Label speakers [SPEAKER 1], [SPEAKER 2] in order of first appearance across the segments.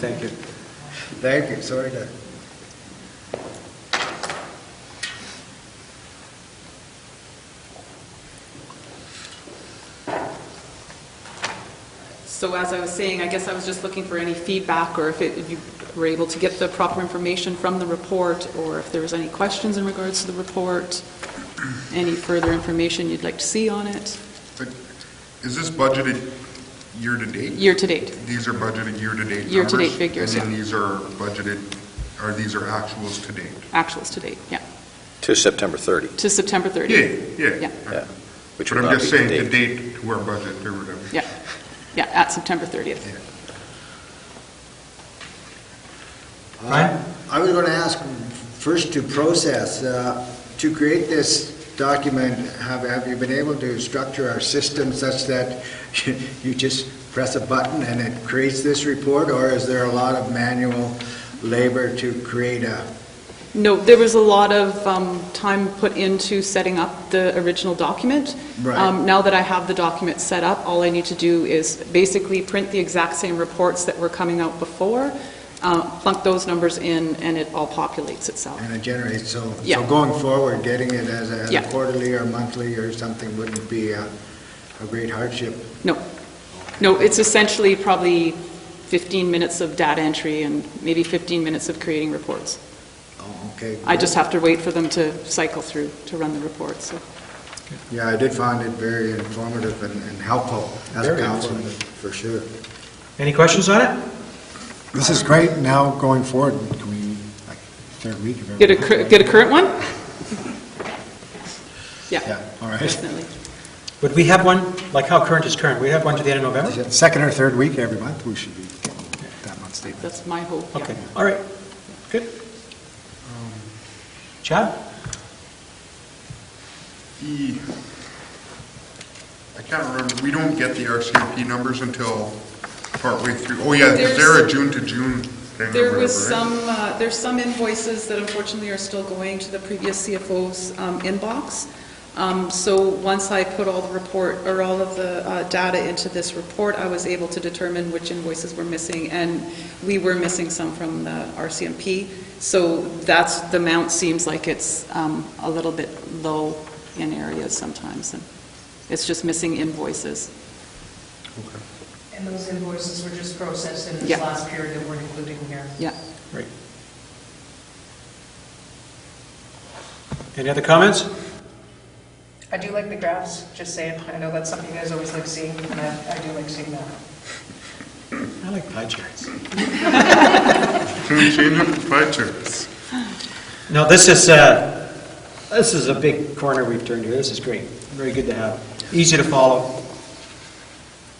[SPEAKER 1] Thank you. Thank you, sorry to...
[SPEAKER 2] So as I was saying, I guess I was just looking for any feedback, or if it- if you were able to get the proper information from the report, or if there was any questions in regards to the report, any further information you'd like to see on it,
[SPEAKER 3] Is this budgeted year-to-date?
[SPEAKER 2] year-to-date.
[SPEAKER 3] These are budgeted year-to-date numbers?
[SPEAKER 2] Year-to-date figures,
[SPEAKER 3] And
[SPEAKER 2] yeah.
[SPEAKER 3] then these are budgeted, or these are actuals to date?
[SPEAKER 2] actuals to date, yeah,
[SPEAKER 4] To September 30,
[SPEAKER 2] to September 30.
[SPEAKER 3] Yeah, yeah.
[SPEAKER 2] Yeah.
[SPEAKER 4] yeah. Which
[SPEAKER 3] But
[SPEAKER 4] would
[SPEAKER 3] I'm
[SPEAKER 4] not
[SPEAKER 3] just
[SPEAKER 4] be
[SPEAKER 3] saying,
[SPEAKER 4] the
[SPEAKER 3] to
[SPEAKER 4] date.
[SPEAKER 3] date to our budget or whatever.
[SPEAKER 2] Yeah, yeah, at September 30th.
[SPEAKER 3] Yeah.
[SPEAKER 5] Brian?
[SPEAKER 1] I was going to ask, first to process, uh, to create this document, have, have you been able to structure our system such that you just press a button and it creates this report, or is there a lot of manual labor to create a,
[SPEAKER 2] No, there was a lot of um, time put into setting up the original document.
[SPEAKER 1] Right.
[SPEAKER 2] Um, Now that I have the document set up, all I need to do is basically print the exact same reports that were coming out before, uh, plunk those numbers in, and it all populates itself.
[SPEAKER 1] and it generates, so, so
[SPEAKER 2] Yeah.
[SPEAKER 1] going forward, getting it as a as a
[SPEAKER 2] Yeah.
[SPEAKER 1] quarterly or monthly or something wouldn't be a, a great hardship.
[SPEAKER 2] No, no, it's essentially probably 15 minutes of data entry and maybe 15 minutes of creating reports.
[SPEAKER 1] Oh, okay.
[SPEAKER 2] I just have to wait for them to cycle through to run the reports, so.
[SPEAKER 1] Yeah, I did find it very informative and and helpful as a
[SPEAKER 5] Very
[SPEAKER 1] councilman, for sure.
[SPEAKER 5] Any questions on it?
[SPEAKER 6] This is great, now going forward, can we, like, third week of every...
[SPEAKER 2] Get a, cur- get a current one?
[SPEAKER 6] Yeah,
[SPEAKER 2] Yeah,
[SPEAKER 6] all right.
[SPEAKER 2] definitely.
[SPEAKER 5] Would we have one, like how current is current? We have one to the end of November?
[SPEAKER 6] Second or third week every month, we should be getting that month's data.
[SPEAKER 2] That's my hope, yeah.
[SPEAKER 5] Okay, all right, good. Chad?
[SPEAKER 3] The, E, I can't remember, we don't get the RCMP numbers until partway through. Oh, yeah, is there a
[SPEAKER 2] There's-
[SPEAKER 3] June-to-June thing or
[SPEAKER 2] There was
[SPEAKER 3] whatever,
[SPEAKER 2] some,
[SPEAKER 3] right?
[SPEAKER 2] uh, there's some invoices that unfortunately are still going to the previous CFO's um, inbox. Um, So once I put all the report, or all of the uh, data into this report, I was able to determine which invoices were missing, and we were missing some from the RCMP. So that's, the amount seems like it's um, a little bit low in areas sometimes, and it's just missing invoices.
[SPEAKER 7] And those invoices were just processed in this
[SPEAKER 2] Yeah.
[SPEAKER 7] last period that we're including here.
[SPEAKER 2] Yeah.
[SPEAKER 5] Right. Any other comments?
[SPEAKER 7] I do like the graphs, just saying. I know that's something you guys always like seeing, and I, I do like seeing that.
[SPEAKER 5] I like pie charts.
[SPEAKER 3] Can we change it to pie charts?
[SPEAKER 5] No, this is, uh, this is a big corner we've turned here. This is great. Very good to have. Easy to follow.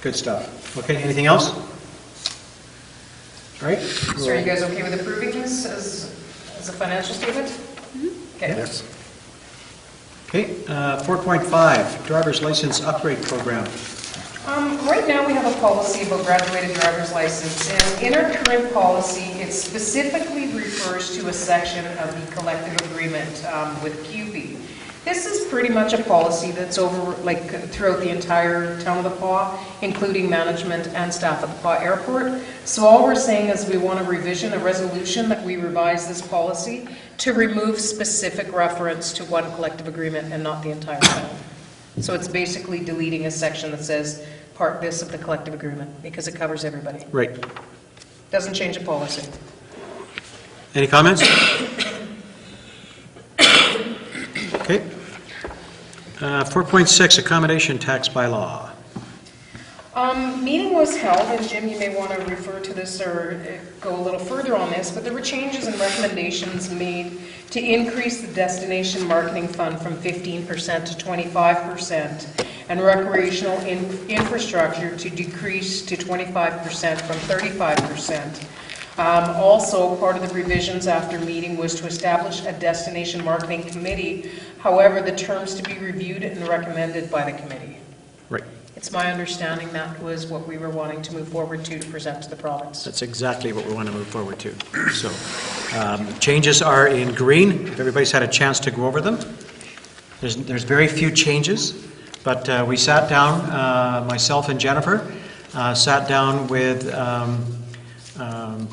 [SPEAKER 5] Good stuff. Okay, anything else? All right?
[SPEAKER 7] So are you guys okay with approving this as, as a financial statement?
[SPEAKER 2] Mm-hmm.
[SPEAKER 7] Okay.
[SPEAKER 1] Yes.
[SPEAKER 5] Okay, uh, 4.5, driver's license upgrade program.
[SPEAKER 7] Um, Right now, we have a policy about graduated driver's license, and in our current policy, it specifically refers to a section of the collective agreement um, with QB. This is pretty much a policy that's over, like, throughout the entire town of the Paw, including management and staff at the Paw Airport. So all we're saying is we want a revision, a resolution that we revise this policy to remove specific reference to one collective agreement and not the entire town. So it's basically deleting a section that says part this of the collective agreement, because it covers everybody.
[SPEAKER 5] Right.
[SPEAKER 7] Doesn't change the policy.
[SPEAKER 5] Any comments? Okay. Uh, 4.6, accommodation tax bylaw.
[SPEAKER 7] Um, Meeting was held, and Jim, you may want to refer to this or uh, go a little further on this, but there were changes and recommendations made to increase the destination marketing fund from 15% to 25%, and recreational in- infrastructure to decrease to 25% from 35%. Um, Also, part of the revisions after meeting was to establish a destination marketing committee, however, the terms to be reviewed and recommended by the committee.
[SPEAKER 5] Right.
[SPEAKER 7] It's my understanding that was what we were wanting to move forward to, to present to the province.
[SPEAKER 5] That's exactly what we want to move forward to. So um, changes are in green. If everybody's had a chance to go over them. There's, there's very few changes, but uh, we sat down, uh, myself and Jennifer, uh, sat down with um, um,